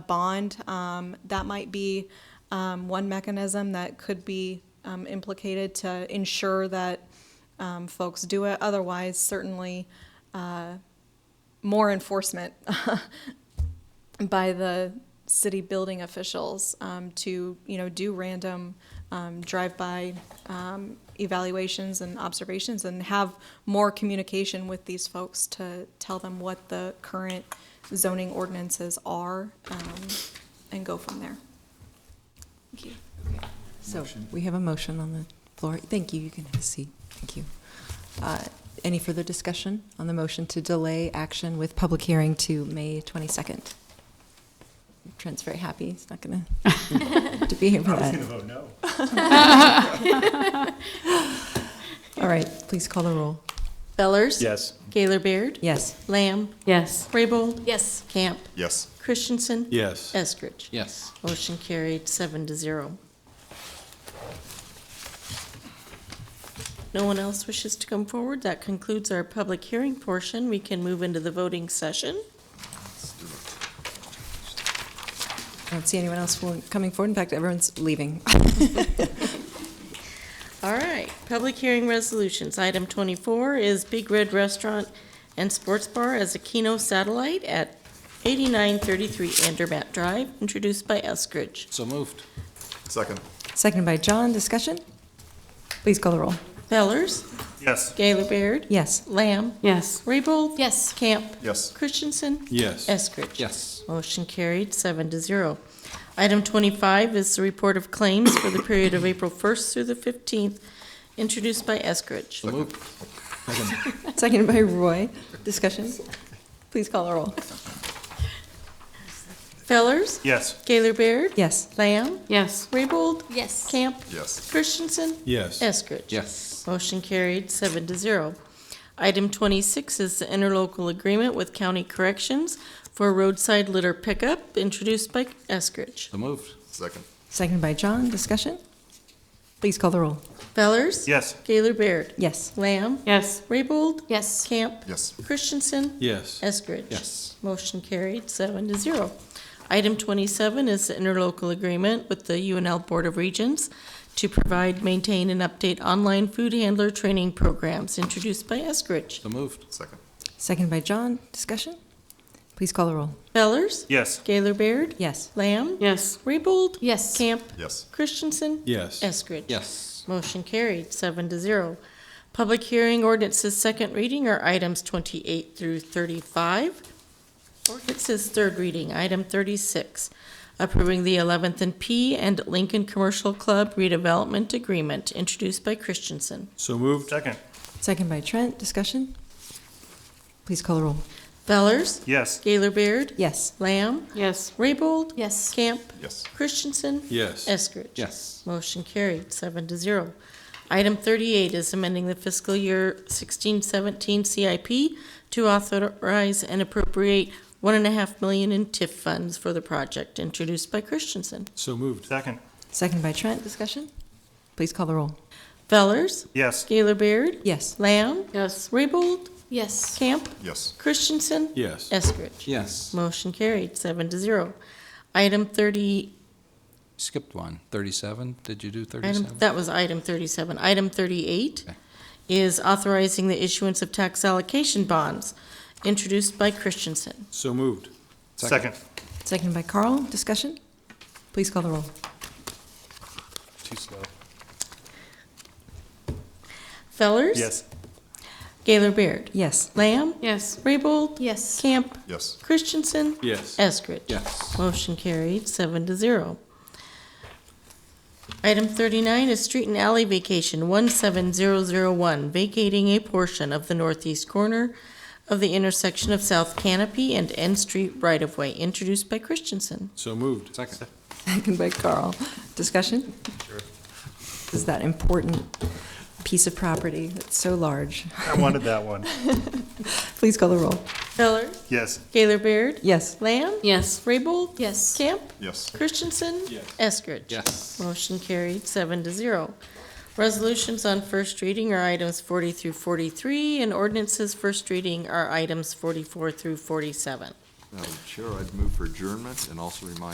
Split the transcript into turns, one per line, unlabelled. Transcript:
bond, um, that might be um, one mechanism that could be um, implicated to ensure that um, folks do it. Otherwise, certainly uh, more enforcement by the city building officials um, to, you know, do random um, drive-by um, evaluations and observations and have more communication with these folks to tell them what the current zoning ordinances are um, and go from there. Thank you.
So we have a motion on the floor. Thank you, you can have a seat. Thank you. Uh, Any further discussion on the motion to delay action with public hearing to May 22nd? Trent's very happy, he's not going to to be here for that.
vote no.
All right, please call the roll. Bellers?
Yes.
Gaylor Baird?
Yes.
Lamb?
Yes.
Raybold?
Yes.
Camp?
Yes.
Christensen?
Yes.
Eskridge?
Yes.
Motion carried, seven to zero. No one else wishes to come forward? That concludes our public hearing portion. We can move into the voting session.
I don't see anyone else will- coming forward. In fact, everyone's leaving.
All right, public hearing resolutions. Item twenty-four is Big Red Restaurant and Sports Bar as a Keno satellite at eighty-nine thirty-three Andermatt Drive, introduced by Eskridge.
So moved.
Second.
Seconded by John, discussion? Please call the roll.
Fellers,
Yes.
Gaylor Baird,
Yes.
Lamb,
Yes.
Raybold.
Yes.
Camp,
Yes.
Christensen,
Yes.
Eskridge.
Yes.
Motion carried, seven to zero. Item twenty-five is the report of claims for the period of April first through the fifteenth, introduced by Eskridge.
So moved. Second.
Seconded by Roy, discussion? Please call the roll.
Fellers,
Yes.
Gaylor Baird,
Yes.
Lamb,
Yes.
Raybold,
Yes.
Camp,
Yes.
Christensen,
Yes.
Eskridge.
Yes.
Motion carried, seven to zero. Item twenty-six is the interlocal agreement with County Corrections for roadside litter pickup, introduced by Eskridge.
So moved.
Second.
Seconded by John, discussion? Please call the roll.
Fellers.
Yes.
Gaylor Baird.
Yes.
Lamb.
Yes.
Raybold.
Yes.
Camp.
Yes.
Christensen.
Yes.
Eskridge.
Yes.
Motion carried, seven to zero. Item twenty-seven is the interlocal agreement with the UNL Board of Regents to provide, maintain, and update online food handler training programs, introduced by Eskridge.
So moved.
Second.
Seconded by John, discussion? Please call the roll.
Fellers.
Yes.
Gaylor Baird.
Yes.
Lamb.
Yes.
Raybold.
Yes.
Camp.
Yes.
Christensen.
Yes.
Eskridge.
Yes.
Motion carried, seven to zero. Public hearing ordinances second reading are items twenty-eight through thirty-five. Ordinances third reading, item thirty-six, approving the Eleventh and P and Lincoln Commercial Club redevelopment agreement, introduced by Christensen.
So moved.
Second.
Seconded by Trent, discussion? Please call the roll.
Fellers,
Yes.
Gaylor Baird,
Yes.
Lamb,
Yes.
Raybold,
Yes.
Camp,
Yes.
Christensen,
Yes.
Eskridge.
Yes.
Motion carried, seven to zero. Item thirty-eight is amending the fiscal year sixteen seventeen CIP to authorize and appropriate one and a half million in TIF funds for the project, introduced by Christensen.
So moved.
Second.
Seconded by Trent, discussion? Please call the roll.
Fellers,
Yes.
Gaylor Baird,
Yes.
Lamb,
Yes.
Raybold,
Yes.
Camp,
Yes.
Christensen,
Yes.
Eskridge.
Yes.
Motion carried, seven to zero. Item thirty,
Skipped one. Thirty-seven. Did you do
Item,
thirty-seven?
that was item thirty-seven. Item thirty-eight
Okay.
is authorizing the issuance of tax allocation bonds, introduced by Christensen.
So moved.
Second.
Seconded by Carl, discussion? Please call the roll.
Too slow.
Fellers?
Yes.
Gaylor Baird?
Yes.
Lamb?
Yes.
Raybold?
Yes.
Camp?
Yes.
Christensen?
Yes.
Eskridge?
Yes.
Motion carried, seven to zero. Item thirty-nine is street and alley vacation, one seven zero zero one, vacating a portion of the northeast corner of the intersection of South Canopy and N Street right-of-way, introduced by Christensen.
So moved. Second.
Seconded by Carl, discussion? This Is that important piece of property that's so large?
I wanted that one.
Please call the roll.
Feller.
Yes.
Gaylor Baird.
Yes.
Lamb.
Yes.
Raybold.
Yes.
Camp.
Yes.
Christensen.
Yes.
Eskridge.
Yes.
Motion carried, seven to zero. Resolutions on first reading are items forty through forty-three, and ordinances first reading are items forty-four through forty-seven.
Madam Chair, I'd move for adjournment and also remind